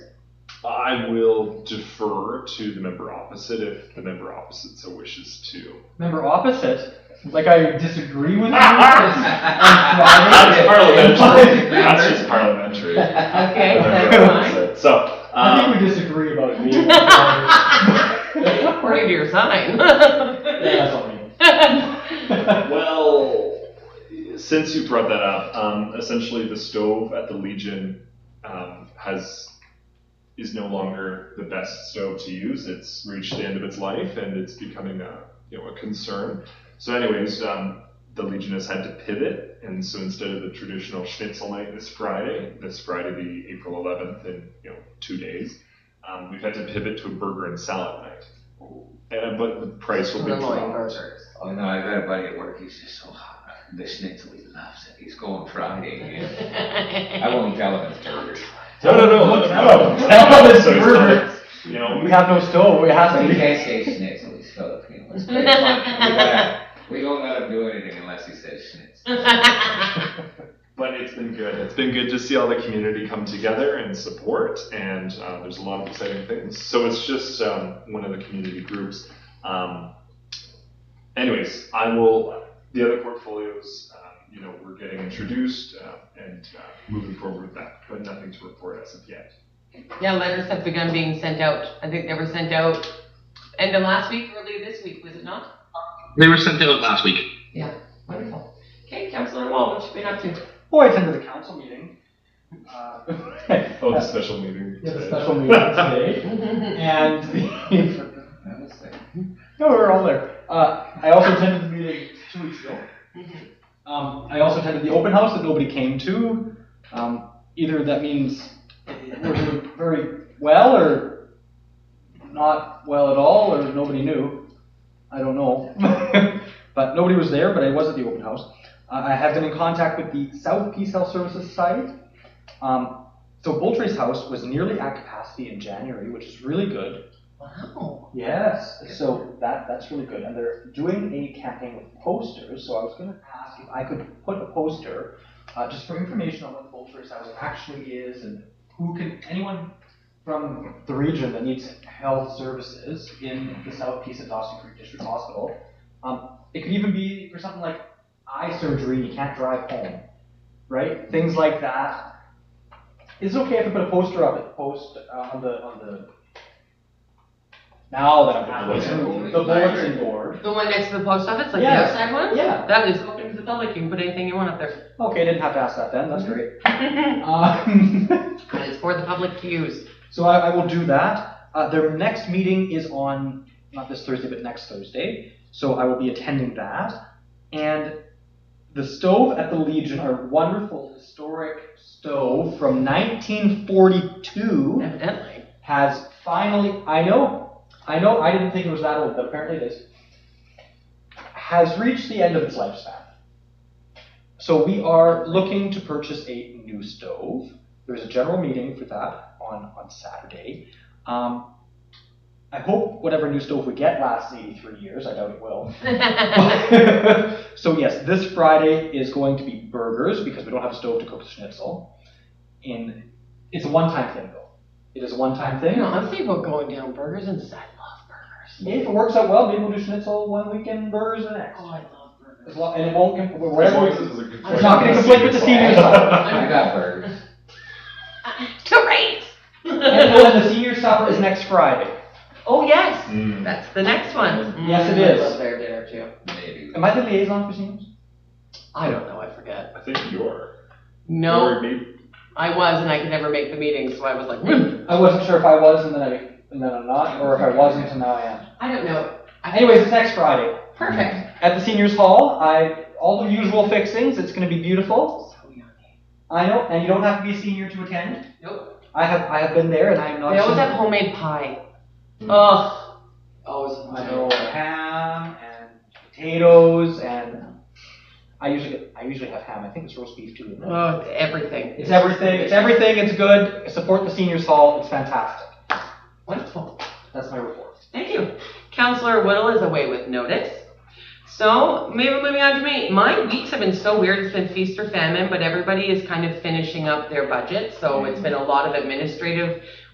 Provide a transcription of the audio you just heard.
I will defer to the member opposite if the member opposite so wishes to. Member opposite? Like I disagree with you? 'cause I'm That's driving? parliamentary. That's just parliamentary. Okay, Member that's opposite. So, I think um, we disagree about me. fine. According to your sign. That's all me. well, since you brought that up, um, essentially the stove at the Legion um, has is no longer the best stove to use. It's reached the end of its life, and it's becoming a you know a concern. So, anyways, um, the Legion has had to pivot, and so instead of the traditional Schnitzel night this Friday, this Friday the April 11th, in you know two days, um, we've had to pivot to a burger and salad night. And, uh, but the price will be Illinois dropped. burgers. Oh no, I've got a buddy at work. He's just so hot. The schnitzel, he loves it. He's going Friday. yeah. I won't tell him it's burgers. No, no, no, let him No, know. no, it's So he's burger. not- You know, We have no stove, it has to He be. can't say schnitzel. He's Filipino. It's very funny. We gotta- We don't let him do anything unless he says schnitzel. but it's been good. It's been good to see all the community come together and support, and uh, there's a lot of exciting things. So it's just um, one of the community groups. Um, anyways, I will. The other portfolios, um, you know, we're getting introduced uh, and uh, moving forward with that, but nothing to report as of yet. Yeah, letters have begun being sent out. I think they were sent out end of last week, early this week, was it not? They were sent out last week. Wonderful. Okay, Councillor Wall, what you been up to? Oh, I attended the council meeting. Uh, Oh, the special meeting. We had a today. special meeting today, and the, That was like- no, we were all there. Uh, I also attended the meeting two weeks ago. Um, I also attended the open house that nobody came to. Um, either that means we're doing very well or not well at all, or nobody knew. I don't know. but nobody was there, but I was at the open house. Uh, I have been in contact with the South Peace Health Services Society. Um, so Boltry's house was nearly at capacity in January, which is really good. Wow. Yes, so that, that's really good, and they're doing a campaign with posters, so I was gonna ask if I could put a poster, uh, just for information on what Vulture's House actually is, and who can, anyone from the region that needs health services in the south piece of Dawson Creek District Hospital, um, it could even be for something like eye surgery, and you can't drive home, right, things like that. Is it okay if I put a poster up at post, uh, on the, on the now that I'm The asking, bulletin the board. bulletin board. The one next to the post office, like the Yeah. outside one? Yeah. That is open to the public, you can put anything you want up there. Okay, I didn't have to ask that then. That's great. And Um, it's for the public to use. so I, I will do that. Uh, their next meeting is on not this Thursday, but next Thursday. So I will be attending that. And the stove at the Legion, our wonderful historic stove from 1942, Evidently. has finally. I know, I know. I didn't think it was that old, but apparently it is. Has reached the end of its lifespan. So we are looking to purchase a new stove. There's a general meeting for that on, on Saturday. Um, I hope whatever new stove we get lasts 83 years. I doubt it will. so yes, this Friday is going to be burgers because we don't have a stove to cook schnitzel. And it's a one-time thing though. It is a one-time You thing. know, I'm thinking about going down burgers and I love burgers. If it works out well, maybe we'll do schnitzel one weekend, burgers the next. Oh, I love burgers. As long, and it won't com- As whatever. long we- as it doesn't conflict It's not gonna with conflict with the senior I got burgers. Great! And then the senior supper is next Friday. Oh, yes, Mm. that's the next one. Yes, it Mm, I is. love their dinner too. Maybe. Am I the liaison for seniors? I don't know, I forget. I think you're. No, Or maybe- I was and I could never make the meeting, so I was like, "Mm, I wasn't sure if I was and then I and then I'm not, or if I wasn't and now I am. I don't know. Anyways, it's next Friday Perfect. at the seniors hall. I all the usual fixings. It's going to be beautiful. So yummy. I know, and you don't have to be a senior to attend. Nope. I have I have been there, and I am not. They a always senior. have homemade pie. Mm. Mm-hmm. Ugh. Always. I know ham and potatoes, and I usually get, I usually have ham. I think it's roast beef too. isn't it? Oh, it's everything. It's everything. It's everything. It's good. Support the seniors hall. It's fantastic. Wonderful. That's my report. Thank you. Counselor Whittle is away with notice. So maybe moving on to me. My weeks have been so weird. It's been feast Mm-hmm. or famine, but everybody is kind of finishing up their budget. So it's been a lot of administrative